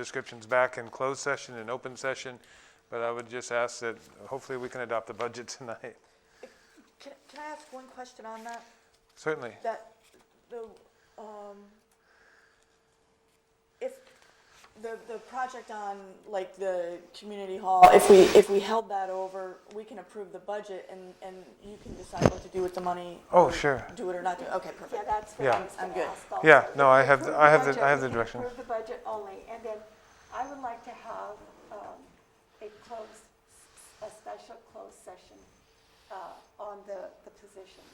descriptions back in closed session and open session, but I would just ask that hopefully we can adopt the budget tonight. Can, can I ask one question on that? Certainly. That, the, um, if, the, the project on, like, the community hall, if we, if we held that over, we can approve the budget and, and you can decide what to do with the money? Oh, or sure. Do it or not do it, okay, Yeah, perfect. that's what Yeah. I was I'm gonna good. ask also. Yeah, no, I have, Approve I have, the I budget, have the we can direction. Approve the budget only, and then I would like to have um, a close, a special closed session uh, on the, the positions.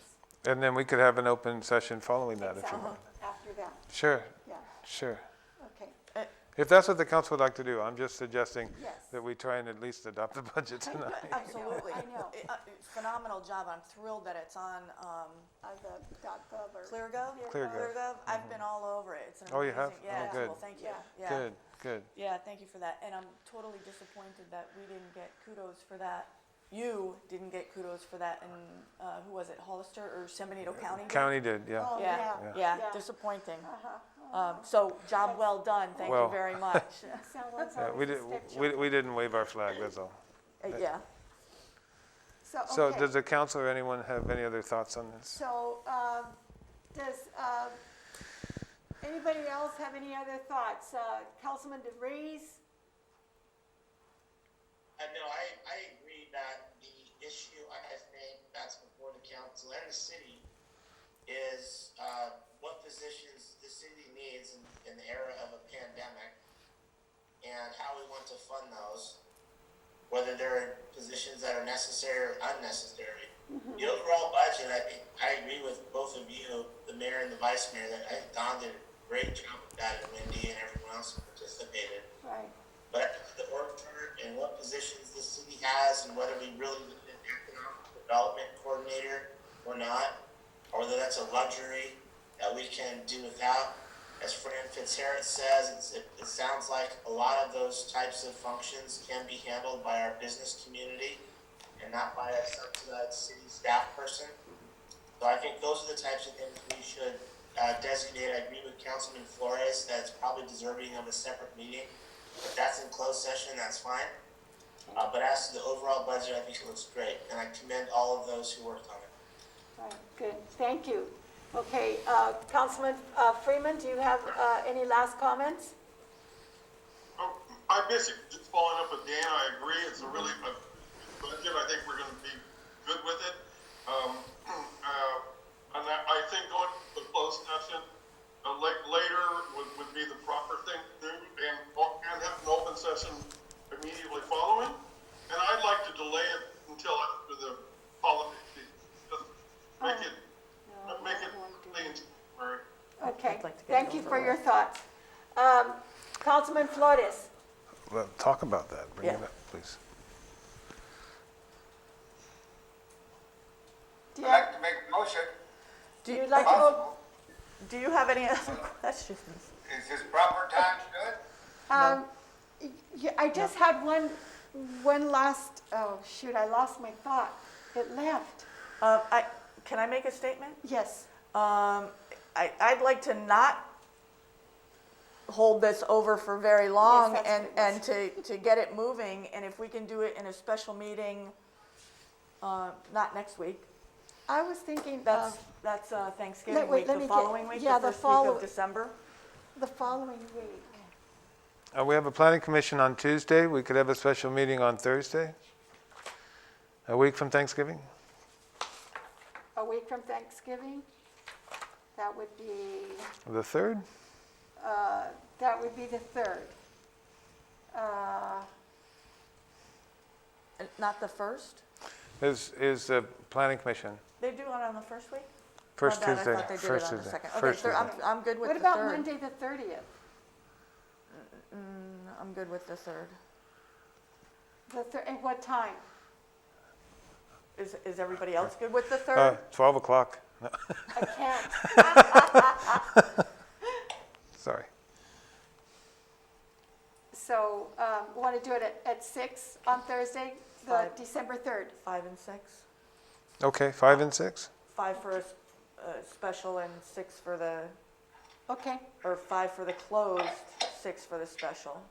And then we could have an open session following that if you Exactly, want. After that, Sure, yeah, sure. okay, If that's what the council would like to do, I'm just suggesting yes. that we try and at least adopt the budget tonight. Uh, Absolutely. I know. Uh, Phenomenal job, I'm thrilled that it's on, um, On Uh, the dot gov or. ClearGov? ClearGov. I've been all over it, it's an amazing. Mm-hmm. Oh, you have? Oh, Yeah, good. well, thank you, Yeah. yeah. Good, good. Yeah, thank you for that. And I'm totally disappointed that we didn't get kudos for that. You didn't get kudos for that in, uh, who was it, Hollister or San Benito County? did? Uh, County did, yeah. Oh, Yeah, yeah. yeah, Yeah. disappointing. Uh-huh. Um, so, job well done, thank you Well. very much. Someone's Yeah, We always a did, stick we job. we didn't wave our flag, that's all. Uh, Yeah, So okay. does the council or anyone have any other thoughts on this? So, um, does, um, anybody else have any other thoughts? Uh, Councilman DeVries? I know, I, I agree that the issue I have named that's before the council and the city is, uh, what positions the city needs in, in the era of a pandemic and how we want to fund those, whether they're positions that are necessary or unnecessary. The overall budget, I think, I agree with both of you, the mayor and the vice mayor, that I think Don did a great job with that and Wendy and everyone else who participated Right. but the org chart and what positions the city has and whether we really need an economic development coordinator or not, or whether that's a luxury that we can do without. As Fran Fitzharris says, it's, it, it sounds like a lot of those types of functions can be handled by our business community and not by a subsidized city staff person. So I think those are the types of things we should uh, designate. I agree with Councilman Flores that it's probably deserving of a separate meeting. If that's in closed session, that's fine. Uh, But as to the overall budget, I think it looks great, and I commend all of those who worked on it. Right, good, thank you. Okay, uh, Councilman uh, Freeman, do you have uh, any last comments? Um, I basically, just following up with Dan, I agree, it's a really, a budget, I think we're gonna be good with it. Um, uh, and I, I think going to the closed session, uh, like, later would, would be the proper thing to do, and, and have an open session immediately following. And I'd like to delay it until after the holiday, just make it, make it, clean, or- Okay, like to get it thank you over for with. your thoughts. Um, Councilman Flores? Well, Talk about that, bring it Yeah. up, please. do you I'd like to make a motion, do you like to, go- possible, do you have any other questions? is this proper time to do it? um, y- y- I just had one, one last, oh, shoot, I lost my thought. It left. Uh, I, can I make a statement? Yes, Um, I, I'd like to not hold this over for very long that's and, what and it to, to get it moving. And if we can do it in a special meeting, uh, not next week, I was thinking that's, of that's uh, Thanksgiving wait, week, let the me get- following week, yeah, the the first week follow- of December. the following week. Uh, We have a planning commission on Tuesday, we could have a special meeting on Thursday, a week from Thanksgiving? A week from Thanksgiving? That would be, The 3rd? uh, that would be the third. Uh, Uh, Not the first? Is, is the planning commission, They do it on the first week? My first bad, Tuesday? Oh, I thought they did it first on the Tuesday, second. first Okay, so I'm, Tuesday. I'm good with What the third. about Monday, the thirtieth? I'm good with the third. The thir, at what time? Is, is everybody else good with the Uh, third? 12 o'clock, No, I can't. sorry. So, um, want to do it at, at six on Thursday, the Five. December third? Five and six? Okay, 5 and 6? Five for a, s- a special and six for the Okay, or five for the closed, six for the special.